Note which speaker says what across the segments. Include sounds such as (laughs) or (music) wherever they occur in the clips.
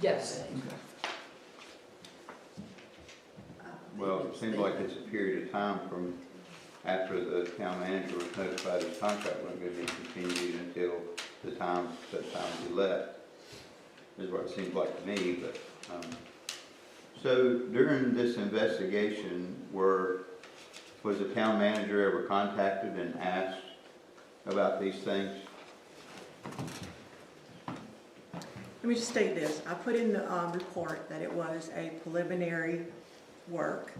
Speaker 1: Yes.
Speaker 2: Well, it seems like it's a period of time from after the town manager was notified his contract wasn't gonna be continued until the time, set time he left. Is what it seems like to me, but, um, so during this investigation, were, was the town manager ever contacted and asked about these things?
Speaker 3: Let me just state this, I put in the, um, report that it was a preliminary work,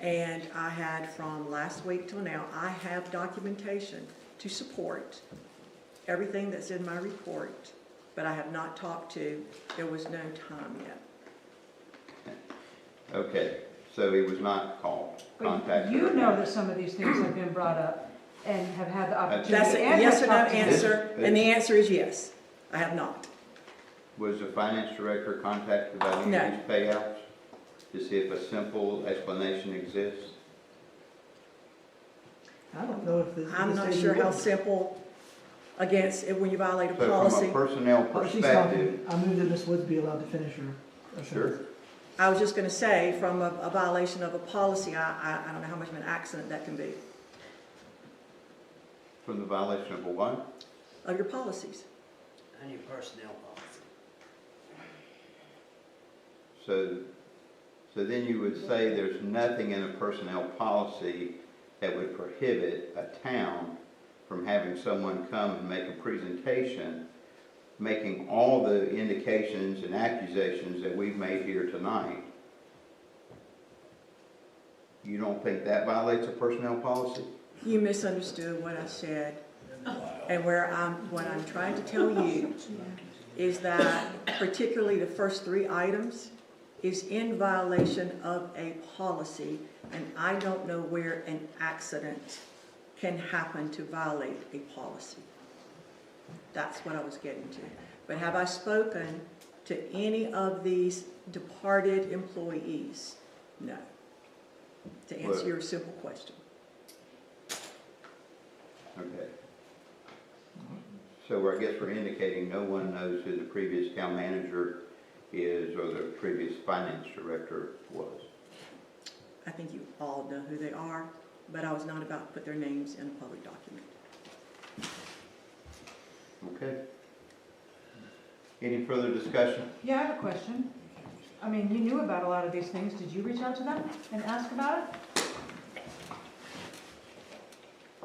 Speaker 3: and I had from last week till now, I have documentation to support everything that's in my report, but I have not talked to, there was no time yet.
Speaker 2: Okay, so he was not called,
Speaker 4: But
Speaker 2: contacted?
Speaker 4: you know that some of these things have been brought up and have had the opportunity.
Speaker 3: That's a
Speaker 4: and
Speaker 3: yes or
Speaker 4: have
Speaker 3: no
Speaker 4: talked to them.
Speaker 3: answer, and the answer is yes, I have not.
Speaker 2: Was the finance director contacted about any
Speaker 3: No.
Speaker 2: of these payouts? To see if a simple explanation exists?
Speaker 5: I don't know if this.
Speaker 3: I'm
Speaker 5: this
Speaker 3: not
Speaker 5: lady
Speaker 3: sure how
Speaker 5: would-
Speaker 3: simple against, it when you violate a
Speaker 2: So from
Speaker 3: policy.
Speaker 2: a personnel
Speaker 5: Oh, she's talking.
Speaker 2: perspective,
Speaker 5: I move that Ms. Woods be allowed to finish her. her
Speaker 2: sure,
Speaker 5: sentence.
Speaker 3: I was just gonna say, from a, a violation of a policy, I, I, I don't know how much of an accident that can be,
Speaker 2: from the violation of a what?
Speaker 3: of your policies.
Speaker 6: And your personnel policy.
Speaker 2: So, so then you would say there's nothing in a personnel policy that would prohibit a town from having someone come and make a presentation, making all the indications and accusations that we've made here tonight. You don't think that violates a personnel policy?
Speaker 3: You misunderstood what I said, and where I'm, what I'm trying to tell you is that particularly the first three items is in violation of a policy, and I don't know where an accident can happen to violate a policy. That's what I was getting to. But have I spoken to any of these departed employees? No. To
Speaker 2: Well-
Speaker 3: answer your simple question.
Speaker 2: Okay. So I guess we're indicating no one knows who the previous town manager is or the previous finance director was.
Speaker 3: I think you all know who they are, but I was not about to put their names in a public document.
Speaker 2: Okay? Any further discussion?
Speaker 4: Yeah, I have a question. I mean, you knew about a lot of these things. Did you reach out to them and ask about it?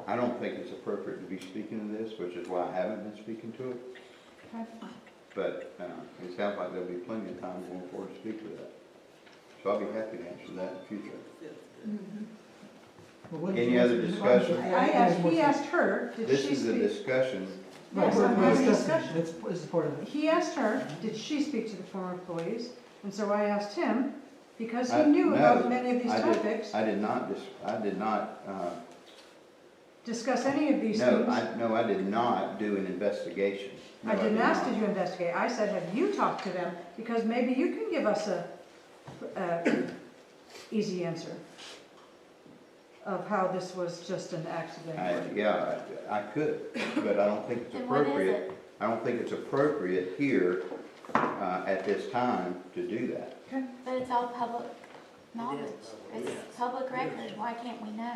Speaker 2: I don't think it's appropriate to be speaking to this, which is why I haven't been speaking to it.
Speaker 4: Okay.
Speaker 2: But uh, it sounds like there'll be plenty of time going forward to speak to that. So I'll be happy to answer that in the future.
Speaker 5: Well, what
Speaker 2: Any
Speaker 5: she
Speaker 2: other
Speaker 5: answer?
Speaker 2: discussion?
Speaker 4: I asked, he asked her, did
Speaker 2: This
Speaker 4: she
Speaker 2: is a
Speaker 4: speak?
Speaker 2: discussion.
Speaker 4: Yes,
Speaker 5: We're-
Speaker 4: I'm
Speaker 5: we're
Speaker 4: having a
Speaker 5: discussing.
Speaker 4: discussion.
Speaker 5: That's, this is part of it.
Speaker 4: He asked her, did she speak to the former employees? And so I asked him, because he
Speaker 2: I-
Speaker 4: knew
Speaker 2: Uh, no,
Speaker 4: about many of these
Speaker 2: I did-
Speaker 4: topics,
Speaker 2: I did not, dis- I did not uh,
Speaker 4: discuss any of these
Speaker 2: No,
Speaker 4: things.
Speaker 2: I, no, I did not do an investigation. No,
Speaker 4: I didn't
Speaker 2: did
Speaker 4: ask,
Speaker 2: not.
Speaker 4: did you investigate? I said, have you talked to them? Because maybe you can give us a, a easy answer of how this was just an
Speaker 2: I,
Speaker 4: accident.
Speaker 2: yeah, I I could, but I don't think
Speaker 7: (laughs)
Speaker 2: it's
Speaker 7: Then what is
Speaker 2: appropriate. I don't think it's appropriate here, uh, at this time to do that.
Speaker 7: But it's all public knowledge.
Speaker 6: public,
Speaker 7: It's
Speaker 6: yes.
Speaker 7: public record. Why can't we know?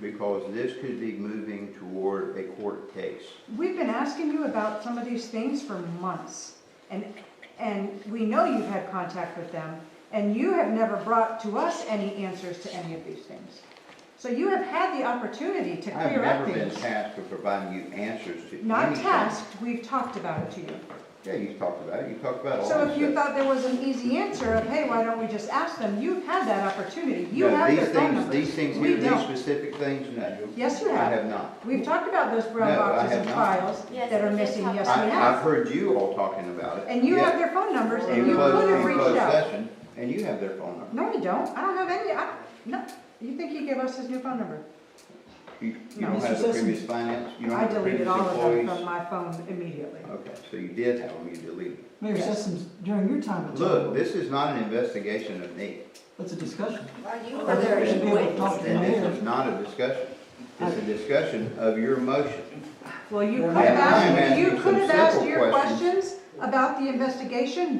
Speaker 2: Because this could be moving toward a court case.
Speaker 4: We've been asking you about some of these things for months, and, and we know you've had contact with them, and you have never brought to us any answers to any of these things. So you have had the opportunity to
Speaker 2: I've
Speaker 4: clear
Speaker 2: never
Speaker 4: up
Speaker 2: been
Speaker 4: things.
Speaker 2: tasked with providing you answers to anything.
Speaker 4: Not tasked, we've talked about it to you.
Speaker 2: Yeah, you talked about it, you talked about all this
Speaker 4: So if you
Speaker 2: stuff.
Speaker 4: thought there was an easy answer of, hey, why don't we just ask them, you've had that opportunity, you
Speaker 2: No,
Speaker 4: have
Speaker 2: these
Speaker 4: their phone
Speaker 2: things-
Speaker 4: numbers.
Speaker 2: These things
Speaker 4: We
Speaker 2: here, these
Speaker 4: don't.
Speaker 2: specific things, no.
Speaker 4: Yes, you
Speaker 2: I
Speaker 4: have.
Speaker 2: have not.
Speaker 4: We've talked about those brown
Speaker 2: No, I
Speaker 4: boxes
Speaker 2: have
Speaker 4: and
Speaker 2: not.
Speaker 4: files
Speaker 7: Yes,
Speaker 4: that are
Speaker 7: we did
Speaker 4: missing,
Speaker 7: talk
Speaker 4: yes,
Speaker 7: about
Speaker 2: I,
Speaker 4: we
Speaker 7: it.
Speaker 2: I've
Speaker 4: have.
Speaker 2: heard you all talking about it.
Speaker 4: And you
Speaker 2: yet
Speaker 4: have their phone numbers,
Speaker 2: in
Speaker 4: and you
Speaker 2: closed-
Speaker 4: could
Speaker 2: in
Speaker 4: have reached
Speaker 2: closed
Speaker 4: out.
Speaker 2: session, And you have their phone number.
Speaker 4: No, we don't, I don't have any, I, no, you think he gave us his new phone number?
Speaker 2: You, you
Speaker 4: No.
Speaker 2: don't have
Speaker 5: Mr.
Speaker 2: the
Speaker 5: Sisson.
Speaker 2: previous finance, you don't
Speaker 4: I
Speaker 2: have the previous
Speaker 4: deleted all of them
Speaker 2: employees?
Speaker 4: from my phone immediately.
Speaker 2: Okay, so you did have them, you deleted them.
Speaker 5: Mayor
Speaker 4: Yes.
Speaker 5: Sessoms, during your time. at
Speaker 2: Look,
Speaker 5: Temple,
Speaker 2: this is not an investigation of me,
Speaker 5: That's a discussion.
Speaker 1: Are you
Speaker 5: I think we should be able to talk to the
Speaker 2: and this is
Speaker 5: mayor.
Speaker 2: not a discussion. It's a discussion of your motion.
Speaker 4: Well, you
Speaker 5: Yeah,
Speaker 4: could
Speaker 5: I'm
Speaker 4: have asked,
Speaker 2: asking
Speaker 4: you
Speaker 2: some
Speaker 4: could have asked
Speaker 2: simple
Speaker 4: your
Speaker 2: questions.
Speaker 4: questions about the investigation